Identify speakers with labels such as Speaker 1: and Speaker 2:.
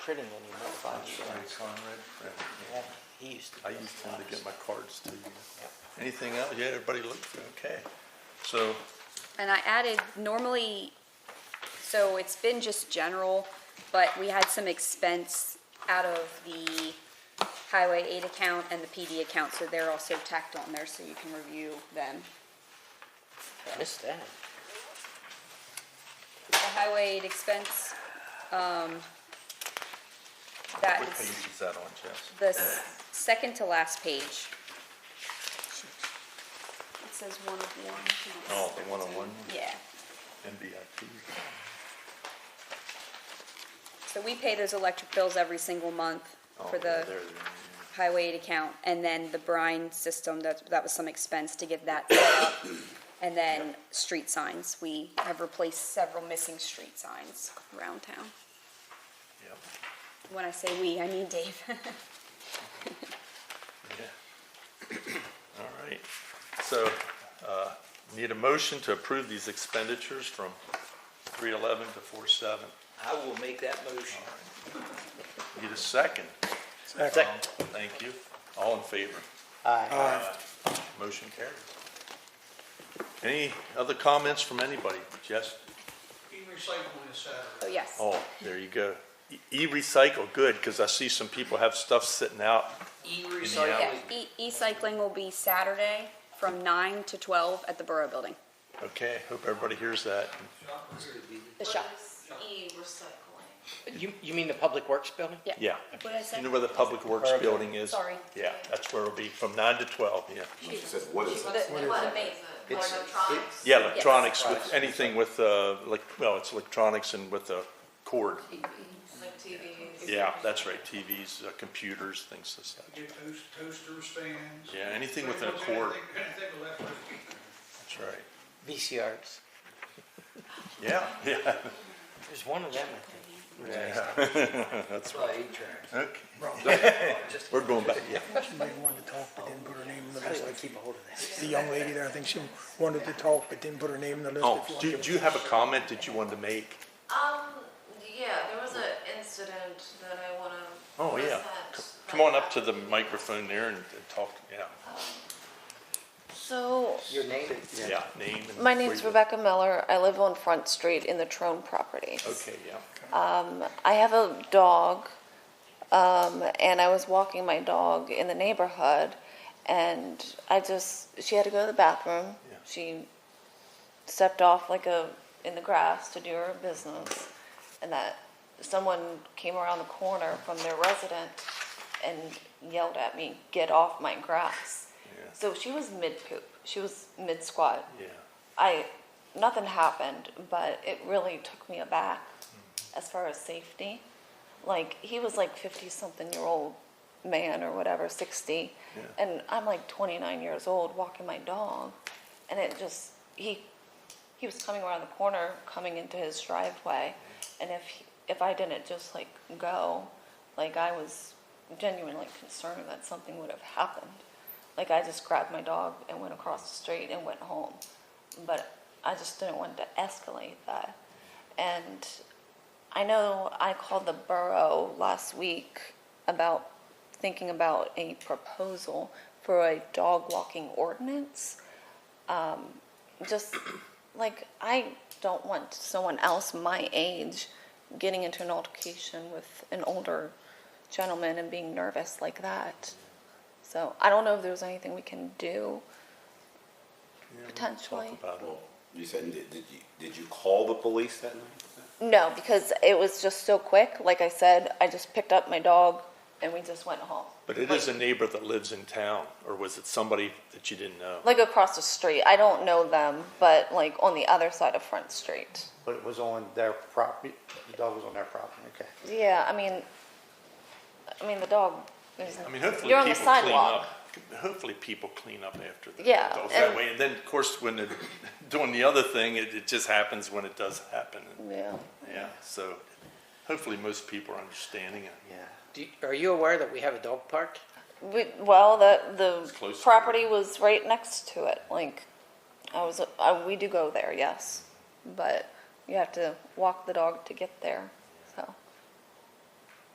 Speaker 1: printing anymore, by
Speaker 2: Conrad,
Speaker 1: the way.
Speaker 2: Conrad, Fred,
Speaker 1: Yeah,
Speaker 2: yeah.
Speaker 1: he used to.
Speaker 2: I
Speaker 1: do
Speaker 2: used him to get
Speaker 1: lots.
Speaker 2: my cards to you. Anything else? Yeah, everybody looked, okay. So,
Speaker 3: And I added normally, so it's been just general, but we had some expense out of the highway aid account and the PD account, so they're also tacked on there, so you can review them.
Speaker 1: Missed that.
Speaker 3: The highway aid expense, um, that
Speaker 2: what page
Speaker 3: is
Speaker 2: is that on, Jess?
Speaker 3: the s- second to last page. It says one of one.
Speaker 2: Oh, the one-on-one,
Speaker 3: Yeah.
Speaker 2: NBIP.
Speaker 3: So we pay those electric bills every single month
Speaker 2: Oh,
Speaker 3: for
Speaker 2: yeah, there
Speaker 3: the
Speaker 2: they are.
Speaker 3: highway aid account, and then the brine system, that, that was some expense to get that set up. And then street signs, we have replaced several missing street signs around town.
Speaker 2: Yep,
Speaker 3: When I say we, I mean Dave.
Speaker 2: yeah. All right. So, uh, need a motion to approve these expenditures from 311 to 47.
Speaker 1: I will make that motion.
Speaker 2: Need a second?
Speaker 4: Second.
Speaker 2: Thank you. All in favor?
Speaker 1: Aye.
Speaker 2: Motion carried. Any other comments from anybody? Jess?
Speaker 5: E-recycling is Saturday.
Speaker 3: Oh, yes.
Speaker 2: Oh, there you go. E- E-recycle, good, because I see some people have stuff sitting out.
Speaker 3: Yeah,
Speaker 1: E-recycling.
Speaker 3: e- e-cycling will be Saturday from nine to twelve at the Borough Building,
Speaker 2: Okay, hope everybody hears that.
Speaker 3: the
Speaker 6: What
Speaker 3: shop.
Speaker 6: is E-recycling?
Speaker 1: You, you mean the Public Works building?
Speaker 2: Yeah.
Speaker 3: What did I say?
Speaker 2: You know where the Public Works building is?
Speaker 3: Sorry.
Speaker 2: Yeah, that's where it'll be, from nine to twelve, yeah.
Speaker 6: She
Speaker 7: said, what is
Speaker 3: The- the-
Speaker 6: What
Speaker 3: the-
Speaker 6: is it? Like electronics?
Speaker 2: Yeah, electronics, with anything with, uh, like, well, it's electronics and with a cord.
Speaker 6: Like TVs?
Speaker 2: Yeah, that's right, TVs, uh, computers, things as that.
Speaker 5: Get toast, toasters, fans.
Speaker 2: Yeah, anything within a
Speaker 5: Anything-
Speaker 2: cord.
Speaker 5: Anything electric.
Speaker 2: That's right.
Speaker 1: VCRs.
Speaker 2: Yeah, yeah,
Speaker 1: There's one of them, I
Speaker 2: that's right.
Speaker 1: think. eight-track.
Speaker 2: Okay. We're going back, yeah.
Speaker 4: She might want to talk, but didn't put her name on the
Speaker 1: How do
Speaker 4: list.
Speaker 1: I keep a hold of that?
Speaker 4: The young lady there, I think she wanted to talk, but didn't put her name on the list.
Speaker 2: Oh,
Speaker 4: If you want
Speaker 2: do,
Speaker 4: to-
Speaker 2: do you have a comment that you wanted to make?
Speaker 6: Um, yeah, there was an incident that I wanna.
Speaker 2: Oh, yeah. C-
Speaker 6: present.
Speaker 2: Come on up to the microphone there and and talk, yeah,
Speaker 6: So,
Speaker 1: Your name?
Speaker 2: yeah, name and.
Speaker 6: my
Speaker 2: where
Speaker 6: name's
Speaker 2: you-
Speaker 6: Rebecca Miller. I live on Front Street in the Trone property.
Speaker 2: Okay, yeah.
Speaker 6: I have a dog, um, and I was walking my dog in the neighborhood, and I just she had to go to the bathroom.
Speaker 2: Yeah.
Speaker 6: She stepped off like a in the grass to do her business, and that someone came around the corner from their resident and yelled at me, "Get off my grass!"
Speaker 2: Yeah.
Speaker 6: So she was mid poop. She was mid squat.
Speaker 2: Yeah,
Speaker 6: I nothing happened, but it really took me aback as far as safety. Like he was like fifty something year old man or whatever, sixty,
Speaker 2: Yeah.
Speaker 6: and I'm like twenty nine years old walking my dog, and it just he he was coming around the corner, coming into his driveway, and if he, if I didn't just like go, like I was genuinely concerned that something would have happened. Like I just grabbed my dog and went across the street and went home, but I just didn't want to escalate that. And I know I called the borough last week about thinking about a proposal for a dog walking ordinance Um, just like I don't want someone else my age getting into an altercation with an older gentleman and being nervous like that. So I don't know if there's anything we can do potentially.
Speaker 2: talk about it.
Speaker 7: You said, did, did you, did you call the police that night?
Speaker 6: No, because it was just so quick. Like I said, I just picked up my dog and we just went home.
Speaker 2: But it is a neighbor that lives in town, or was it somebody that you didn't know?
Speaker 6: Like across the street. I don't know them, but like on the other side of Front Street.
Speaker 8: But it was on their property, the dog was on their property, okay.
Speaker 6: Yeah, I mean, I mean the dog. Is,
Speaker 2: I mean, hopefully
Speaker 6: you're on the
Speaker 2: people clean
Speaker 6: sidewalk.
Speaker 2: up. Hopefully people clean up after the
Speaker 6: Yeah,
Speaker 2: dogs
Speaker 6: and-
Speaker 2: that way. And then, of course, when they're doing the other thing, it, it just happens when it does happen.
Speaker 6: Yeah.
Speaker 2: Yeah, so hopefully most people are understanding it.
Speaker 8: Yeah.
Speaker 1: Do, you- are you aware that we have a dog park?
Speaker 6: We, well, the
Speaker 2: It's
Speaker 6: the
Speaker 2: close to
Speaker 6: property was right next to it. Like, I was, I, we do go there, yes, but you have to walk the dog to get there.